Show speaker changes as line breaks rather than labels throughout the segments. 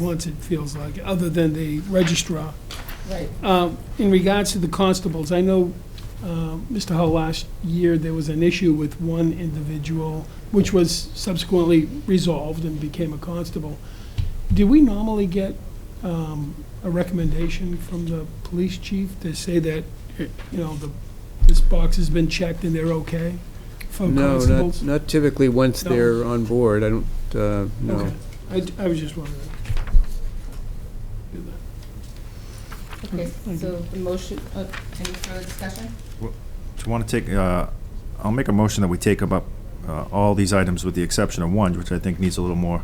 once, it feels like, other than the registrar.
Right.
Um, In regards to the constables, I know, uh, Mr. Hull, last year, there was an issue with one individual, which was subsequently resolved and became a constable. Do we normally get um, a recommendation from the police chief to say that, you know, the- this box has been checked and they're okay for
No, not,
Oh, constables?
not typically, once
No.
they're on board, I don't, uh, no.
Okay. I d- I was just wondering. Do that.
Okay,
Thank
so the motion, uh, any further discussion?
Do you want to take, uh, I'll make a motion that we take up uh, all these items with the exception of one, which I think needs a little more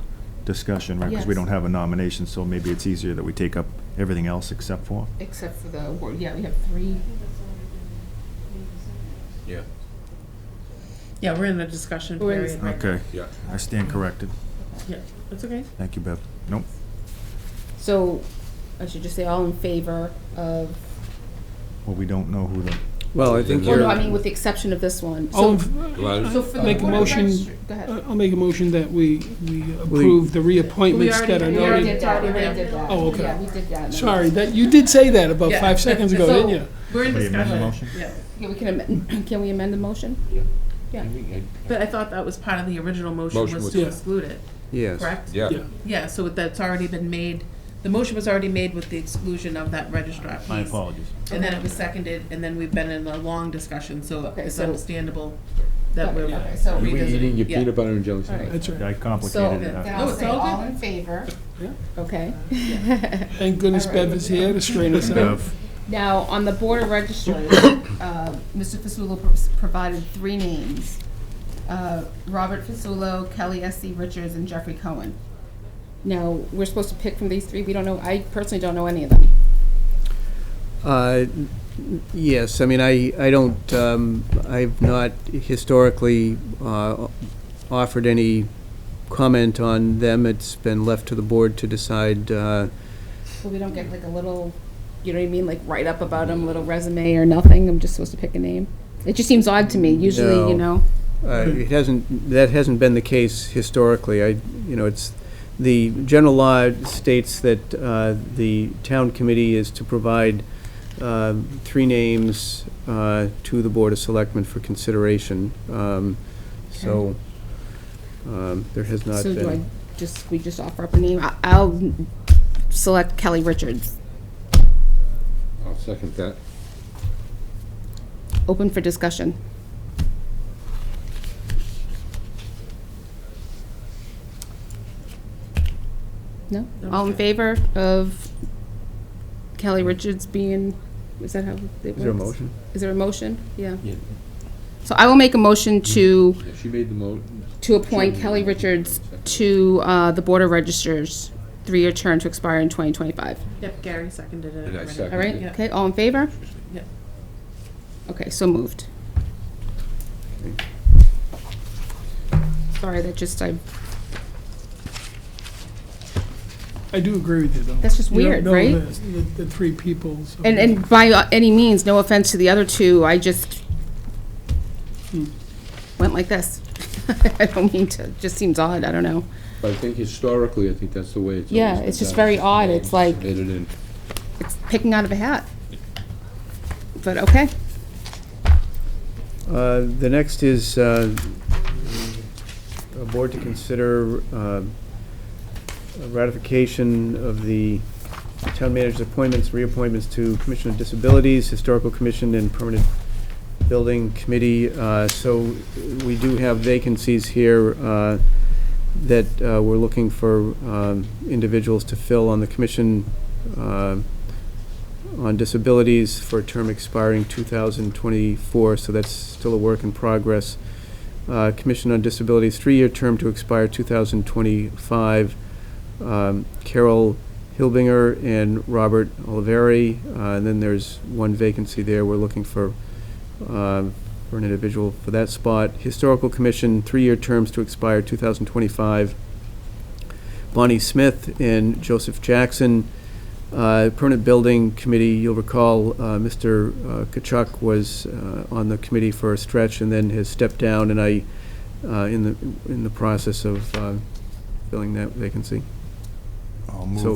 discussion, right? Because we
Yes.
don't have a nomination, so maybe it's easier that we take up everything else except for.
Except for the award, yeah, we have three.
Yeah, we're in the discussion
We're in
period. right
Okay,
Yeah.
I stand corrected.
now. Yeah, that's okay.
Thank you, Bev. Nope.
So I should just say all in favor of,
Well, we don't know who the,
Well, I think
well,
you're,
no, I mean, with the exception of this one.
All in
So-
f-
Gladys?
So for the
Make a
Board of
motion-
Registr- Go ahead.
I- I'll make a motion that we, we approve the reappointments that are
already-
We already
noted.
did that, we already did that.
Oh, okay.
Yeah, we did that.
Sorry, that, you did say that about
Yeah.
five seconds ago,
So-
didn't you?
We're in
What, you amend the
discussion.
motion?
Yeah,
Yeah, we can amend, can we amend the motion?
but I thought that was part of the original motion
Motion
was
was-
to
Yeah.
exclude it,
yes.
correct?
Yeah.
Yeah.
Yeah, so that's already been made, the motion was already made with the exclusion of that registrar piece.
my apologies.
And then it was seconded, and then we've been in a long discussion, so
Okay,
it's
so-
understandable that we're
Okay, So,
You were eating
revisiting.
your
Yeah.
peanut butter and jelly sandwich.
That's right.
I
so
complicated it.
then
I-
No,
I'll
it's
say
all
all
good.
in favor.
Yeah.
Okay.
Thank goodness
All right.
Bev is here to straighten
uh,
us out.
Bev,
Now, on the Board of Registrars, uh, Mr. Fasulo pro- provided three names. uh, Robert Fasulo, Kelly S.C. Richards, and Jeffrey Cohen. Now, we're supposed to pick from these three. We don't know, I personally don't know any of them.
Uh, n- Yes, I mean, I, I don't, um, I've not historically uh, offered any comment on them. It's been left to the board to decide, uh,
So we don't get like a little, you know what I mean, like write-up about them, little resume or nothing. I'm just supposed to pick a name. It just seems odd to me. Usually, you
Mm, No.
know.
Uh, It hasn't, that hasn't been the case historically. I, you know, it's, the general law states that uh, the town committee is to provide uh, three names uh, to the Board of Selectmen for consideration. Um, So um, there has not
So do I
been.
just, we just offer up a name? I- I'll select Kelly Richards.
I'll second that.
Open for discussion. No? All in favor of Kelly Richards being, is that how it works?
Is there a motion?
Is there a motion? Yeah.
Yeah,
So I will make a motion to,
yeah, she made the mo,
to appoint Kelly Richards to uh, the Board of Registers, three-year term to expire in 2025.
Yep, Gary seconded
Did
it.
I
already.
second?
All right?
Yeah.
Okay, all in favor?
Yep.
Okay, so moved. Sorry, that just, I,
I do agree with you, though.
That's just
You don't
weird,
know
right?
The the- the three people. so-
and, and by uh, any means, no offense to the other two, I just hmm, went like this. I don't mean to, it just seems odd, I don't know.
but I think historically, I think that's the way it's always
Yeah,
been
it's just
done.
very odd. It's like-
Submitted in.
It's picking out of a hat. But, okay.
Uh, The next is uh, a board to consider uh, a ratification of the town manager's appointments, reappointments to Commission of Disabilities, Historical Commission, and Permanent Building Committee. Uh, So we do have vacancies here uh, that uh, we're looking for um, individuals to fill on the Commission uh, on Disabilities for a term expiring 2024, so that's still a work in progress. Uh, Commission on Disabilities, three-year term to expire 2025. Um, Carol Hilbinger and Robert Oliveri, uh, and then there's one vacancy there. We're looking for, um, for an individual for that spot. Historical Commission, three-year terms to expire 2025. Bonnie Smith and Joseph Jackson. Uh, Permanent Building Committee, you'll recall, uh, Mr. uh, Kachuk was uh, on the committee for a stretch and then has stepped down, and I, uh, in the, in the process of uh, filling that vacancy.
I'll
I'll move
So